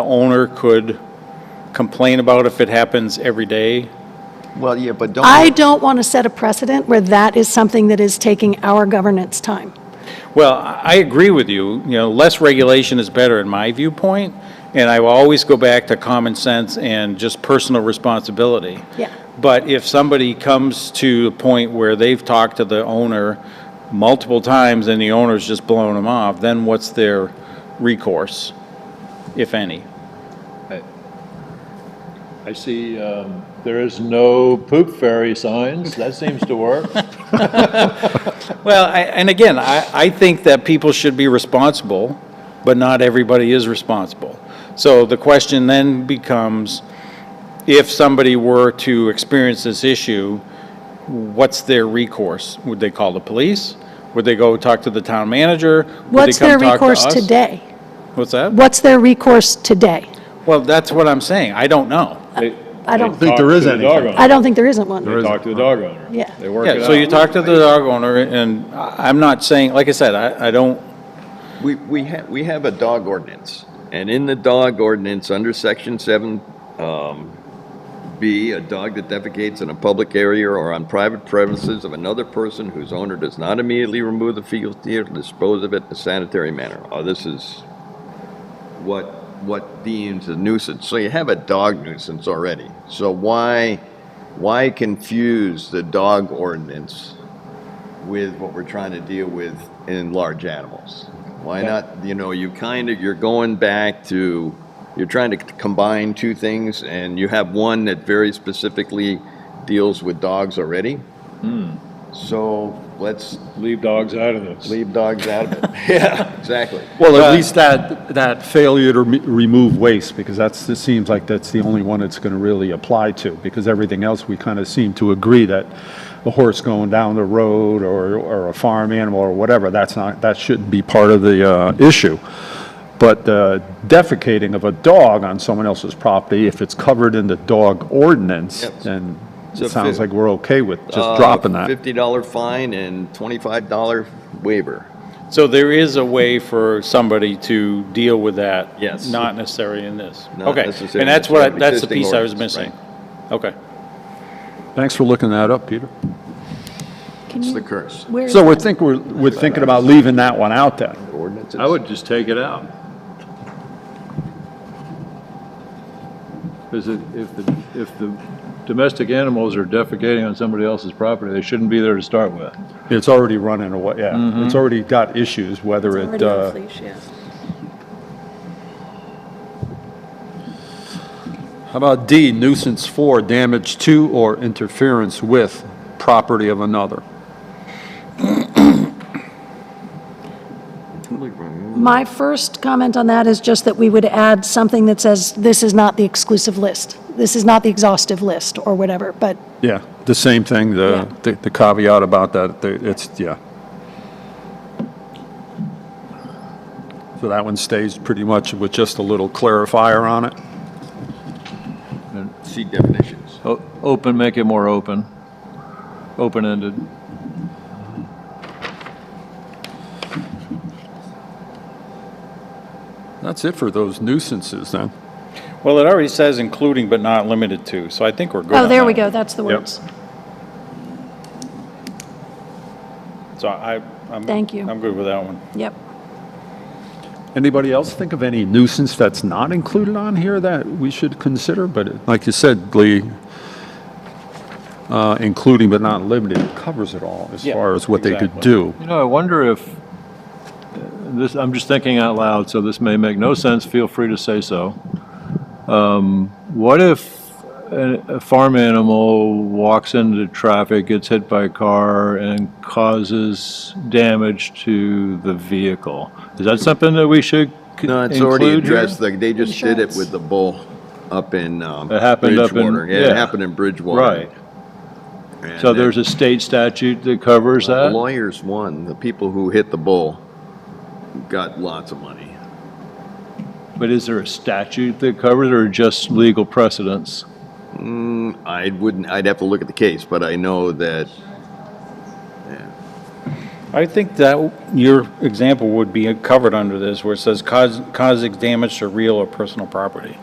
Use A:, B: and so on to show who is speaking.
A: The owner could complain about if it happens every day.
B: Well, yeah, but don't.
C: I don't want to set a precedent where that is something that is taking our governance time.
A: Well, I I agree with you, you know, less regulation is better in my viewpoint, and I will always go back to common sense and just personal responsibility.
C: Yeah.
A: But if somebody comes to a point where they've talked to the owner multiple times and the owner's just blowing them off, then what's their recourse, if any?
D: I see um, there is no poop fairy signs. That seems to work.
A: Well, I- and again, I, I think that people should be responsible, but not everybody is responsible. So the question then becomes, if somebody were to experience this issue, what's their recourse? Would they call the police? Would they go talk to the town manager? Would they
C: What's
A: come
C: their
A: talk to
C: recourse
A: us?
C: today?
A: What's that?
C: What's their recourse today?
A: Well, that's what I'm saying. I don't know.
C: I don't-
B: think there is
D: any.
B: anything.
C: I don't think there isn't
D: They
C: one.
D: talk to the dog owner.
C: Yeah.
D: They work it
A: Yeah, so you
D: out.
A: talk to the dog owner, and I- I'm not saying, like I said, I, I don't,
B: We, we have, we have a dog ordinance, and in the dog ordinance, under section seven, um, B, a dog that defecates in a public area or on private premises of another person whose owner does not immediately remove the fecal or dispose of it in a sanitary manner. Oh, this is what, what deems a nuisance. So you have a dog nuisance already. So why, why confuse the dog ordinance with what we're trying to deal with in large animals. Why not, you know, you kind of, you're going back to, you're trying to c- combine two things, and you have one that very specifically deals with dogs already.
D: Hmm.
B: So let's
D: Leave dogs out of this.
B: leave dogs out of it. Yeah, exactly.
E: Well,
A: But-
E: at least that, that failure to rem- remove waste, because that's, it seems like that's the only one it's going to really apply to, because everything else, we kind of seem to agree that a horse going down the road or, or a farm animal or whatever, that's not, that shouldn't be part of the uh, issue. But the defecating of a dog on someone else's property, if it's covered in the dog ordinance,
B: Yep.
E: then
B: So
E: it sounds
B: fi-
E: like we're okay with
B: Uh,
E: just dropping that.
B: $50 fine and $25 waiver.
A: So there is a way for somebody to deal with that?
B: Yes.
A: Not necessary in this?
B: Not
A: Okay.
B: necessary
A: And that's
B: in this,
A: what, I-
B: but
A: that's the
B: existing
A: piece I was
B: ordinance,
A: missing? Okay.
E: Thanks for looking that up, Peter.
C: Can
B: It's
C: you-
B: the curse.
C: where is
E: So we
C: that?
E: think we're, we're thinking about leaving that one out then.
B: Ordinances.
D: I would just take it out. Because if, the- if the domestic animals are defecating on somebody else's property, they shouldn't be there to start with.
E: It's already running away, yeah. It's already got issues, whether it, uh, how about D, nuisance for damage to or interference with property of another?
C: My first comment on that is just that we would add something that says, this is not the exclusive list. This is not the exhaustive list, or whatever, but
E: Yeah, the same thing, the, the the caveat about that, the- it's, yeah. So that one stays pretty much with just a little clarifier on it.
B: See definitions.
D: O- Open, make it more open, open-ended.
E: That's it for those nuisances then.
A: Well, it already says including but not limited to, so I think we're good
C: Oh,
A: on
C: there
A: that
C: we
A: one.
C: go, that's the
E: Yep.
C: words.
A: So I, I'm.
C: Thank you.
A: I'm good with that one.
C: Yep.
E: Anybody else think of any nuisance that's not included on here that we should consider? But like you said, Lee, uh, including but not limited covers it all as
A: Yeah,
E: far as what they could
A: exactly.
E: do.
D: You know, I wonder if, uh, this, I'm just thinking out loud, so this may make no sense, feel free to say so. Um, What if a a farm animal walks into traffic, gets hit by a car, and causes damage to the vehicle? Is that something that we should c-
B: No, it's already
D: include here?
B: addressed, like, they just did it
C: Insurance.
B: with the bull up in, um.
D: It happened up in-
B: Bridgewater. Yeah,
D: yeah.
B: it happened in Bridgewater.
D: Right,
B: And
D: so there's
B: the-
D: a state statute that covers
B: the
D: that?
B: Lawyers won, the people who hit the bull got lots of money.
D: But is there a statute that covers it, or just legal precedents?
B: I wouldn't, I'd have to look at the case, but I know that, yeah.
A: I think that your example would be covered under this, where it says cause, causing damage to real or personal property.